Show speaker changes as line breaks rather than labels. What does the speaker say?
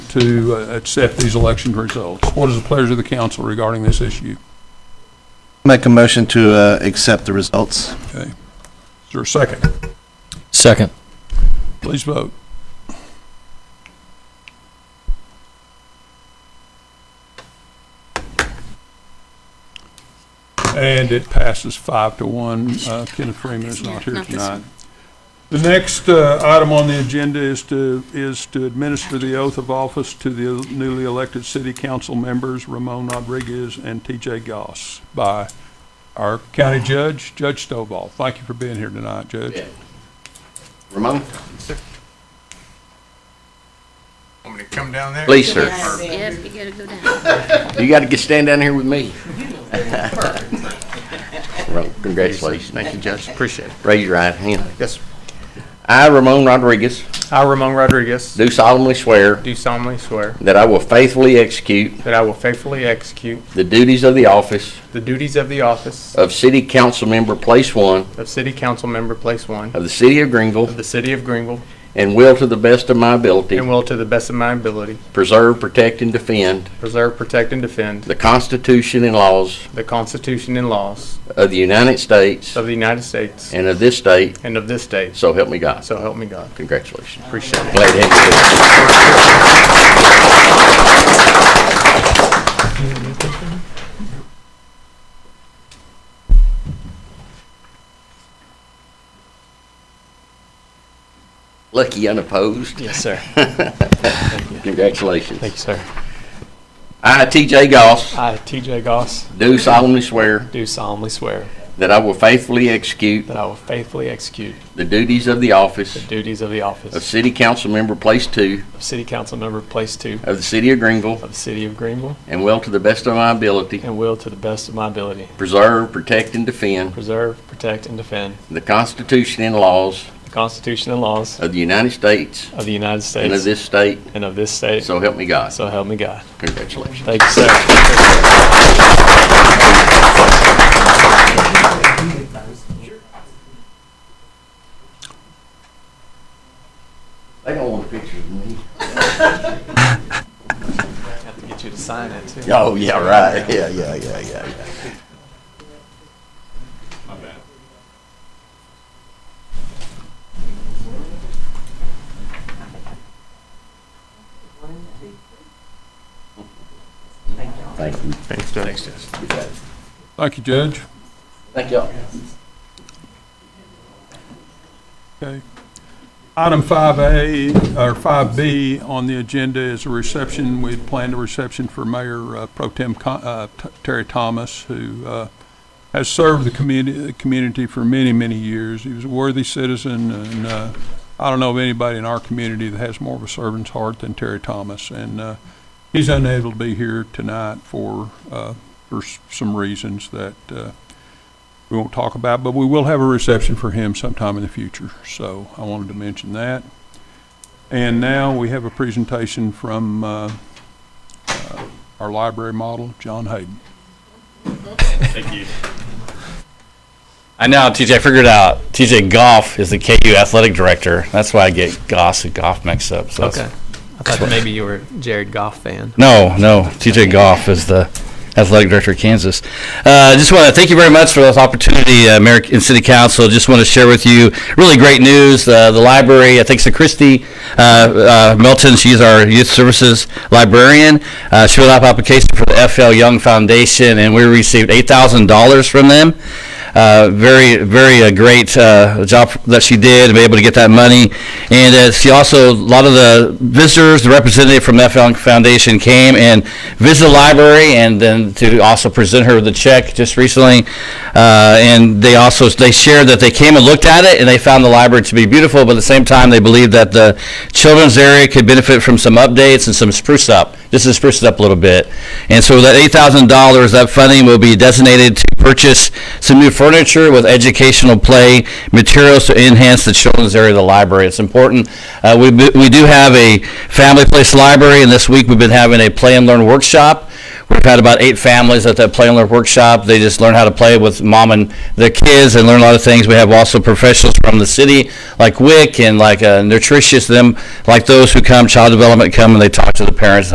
to uh, accept these election results. What is the pleasure of the council regarding this issue?
Make a motion to uh, accept the results.
Okay. Is there a second?
Second.
Please vote. And it passes five to one. Uh, Kenneth Freeman is not here
Not this
tonight. The next uh, item on the agenda is to, is to administer the oath of office to the newly elected city council members Ramon Rodriguez and TJ Goss by our county judge, Judge Stovall. Thank you for being here tonight, Judge.
Ramon?
Want me to come down there?
Please, sir.
Yes, yep, you gotta go down.
You got to get, stand down here with me. Well, Congratulations. Thank you, Judge. Appreciate it. Raise your right hand.
Yes, sir.
I, Ramon Rodriguez,
I, Ramon Rodriguez,
do solemnly swear
do solemnly swear
that I will faithfully execute
that I will faithfully execute
the duties of the office
the duties of the office
of City Council Member Place One
of City Council Member Place One
of the City of
of
Greenville
the City of Greenville
and will, to the best of my ability,
and will to the best of my ability
preserve, protect, and defend
preserve, protect, and defend
the Constitution and laws
the Constitution and laws
of the United States
of the United States
and of this state,
and of this state.
so help me God.
So help me God.
Congratulations.
Appreciate it.
Glad to have you. here. Lucky unopposed.
Yes, sir. Thank you,
Congratulations.
sir.
I, TJ Goss,
I, TJ Goss,
do solemnly swear
do solemnly swear
that I will faithfully execute
that I will faithfully execute
the duties of the office
duties of the
of
office
City Council Member Place Two
of City Council Member Place Two
of the City of Greenville
of the City of Greenville
and will, to the best of my ability,
and will to the best of my ability
preserve, protect, and defend
preserve, protect, and defend
the Constitution and laws
the Constitution and laws
of the United States
of the United
and of
States
this state,
and of this state.
so help me God.
So help me God.
Congratulations.
Thank you, sir.
They don't want pictures of me.
Have to get you to sign it, too.
Oh, yeah, right. Yeah, yeah, yeah, yeah, yeah. Thank you.
Thanks, Judge.
Thank you, Judge.
Thank y'all.
Okay. Item 5A, or 5B on the agenda is a reception. We'd planned a reception for Mayor uh, Pro Tem Co- uh, T- Terry Thomas, who uh, has served the community, the community for many, many years. He was a worthy citizen, and uh, I don't know of anybody in our community that has more of a servant's heart than Terry Thomas. And uh, he's unable to be here tonight for, uh, for s- some reasons that uh, we won't talk about, but we will have a reception for him sometime in the future. So I wanted to mention that. And now we have a presentation from uh, uh, our library model, John Hayden.
I know, TJ. I figured it out. TJ Goff is the KU athletic director. That's why I get Goss and Goff mixed up. So
Okay.
that's-
I thought maybe you were a Jared Goff fan.
No, no. TJ Goff is the athletic director of Kansas. Uh, just want to thank you very much for this opportunity, uh, Mayor and City Council. Just want to share with you really great news. Uh, the library, uh, thanks to Christy uh, uh, Melton, she's our youth services librarian. Uh, she filled out an application for the FL Young Foundation, and we received $8,000 from them. Uh, very, very uh, great uh, job that she did to be able to get that money. And uh, she also, a lot of the visitors, the representative from FL Foundation came and visited the library and then to also present her with a check just recently. Uh, and they also, they shared that they came and looked at it and they found the library to be beautiful, but at the same time, they believed that the children's area could benefit from some updates and some spruce up, just to spruce it up a little bit. And so that $8,000, that funding will be designated to purchase some new furniture with educational play materials to enhance the children's area of the library. It's important. Uh, we, we do have a family place library, and this week we've been having a play and learn workshop We've had about eight families at that Play and Learn workshop. They just learn how to play with mom and their kids and learn a lot of things. We have also professionals from the city, like WIC and like uh, Nutritious, them, like those who come, Child Development come and they talk to the parents